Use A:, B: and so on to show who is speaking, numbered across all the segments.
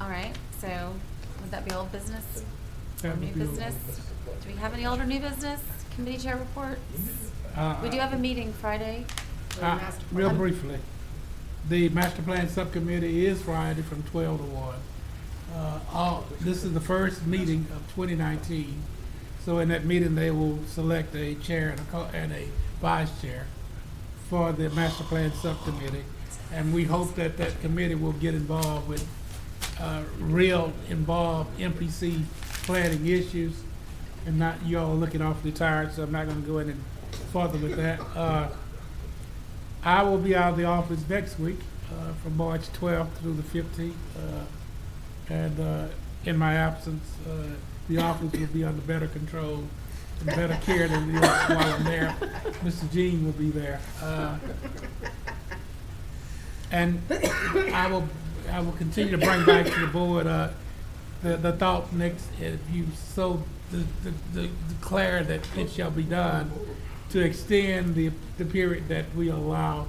A: All right, so would that be old business?
B: That
A: Or
B: would
A: new
B: be old
A: business?
B: business.
A: Do we have any old or new business? Committee chair reports?
B: Uh,
A: We do have a meeting Friday. Um,
B: uh,
C: master
B: Real
A: plan.
B: briefly, the master plan subcommittee is Friday from twelve to one. Uh, all, this is the first meeting of twenty nineteen, so in that meeting, they will select a chair and a co- and a vice chair for the master plan subcommittee. And we hope that that committee will get involved with, uh, real involved MPC planning issues. And not, you all are looking awfully tired, so I'm not gonna go any further with that. Uh, I will be out of the office next week, uh, from March 12th through the 15th. uh, And uh, in my absence, uh, the office will be under better control and better care than it is while I'm there. Mr. Jean will be there. uh, And I will, I will continue to bring back to the board uh, the, the thought next, if you so de- de- de- declare that it shall be done, to extend the, the period that we allow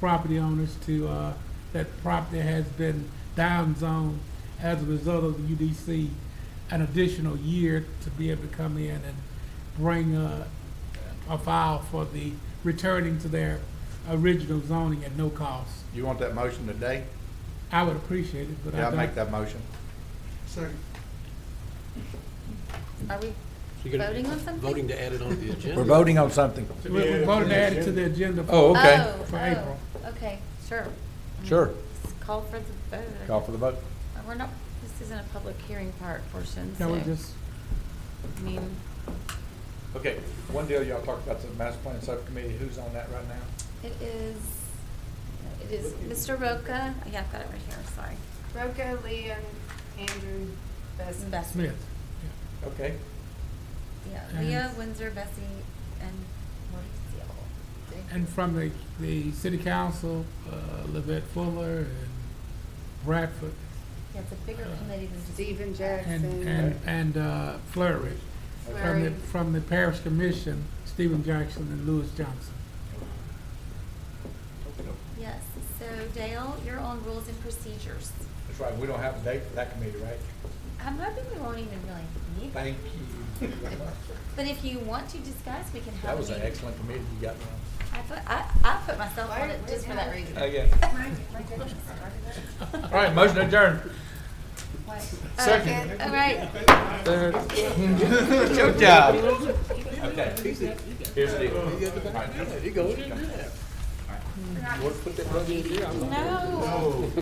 B: property owners to, uh, that property has been downzoned as a result of the UDC, an additional year to be able to come in and bring a, a file for the, returning to their original zoning at no cost.
D: You want that motion today?
B: I would appreciate it, but I
D: Yeah, I'll
B: don't.
D: make that motion.
A: Are we
E: You're gonna be
A: voting on something?
E: Voting to add it on the
D: We're
E: agenda?
D: voting on something.
B: We- We're voting to add it to the agenda. for-
D: Oh, okay.
A: Oh,
B: For
A: oh,
B: April.
A: Okay, sure.
D: Sure.
A: Just Call for the vote.
D: Call for the vote.
A: Uh, We're not, this isn't a public hearing part portion,
B: No,
A: so,
B: we just,
A: I mean,
D: Okay, one deal y'all talked about, the master plan subcommittee, who's on that right now?
A: it is, it is Mr. Roca, yeah, I've got it right here, sorry.
C: Roca, Leon, Andrew, Bess.
A: Bessie.
B: Smith.
D: Okay,
A: Yeah,
B: And-
A: Leah, Windsor, Bessie, and Mauricio.
B: And from the, the city council, uh, Levette Fuller and Bradford
A: Yeah, it's a bigger committee than just.
C: Steven
B: and,
C: Jackson.
B: and, and uh, Flurry. From the,
C: Flurry.
B: from the parish commission, Stephen Jackson and Lewis Johnson.
A: Yes, so Dale, you're on rules and procedures.
D: that's right, we don't have a date for that committee, right?
A: I'm hoping we won't even really need, it.
D: Thank you.
A: but if you want to discuss, we can have.
D: That
A: a
D: was an
A: meeting.
D: excellent committee you got there.
A: I put, I, I put myself on it just for that reason.
D: Oh, yeah. All right, motion adjourned. Second.
A: All right,
D: Good job. Okay. Here's the deal.
E: You go in and do that.
A: no.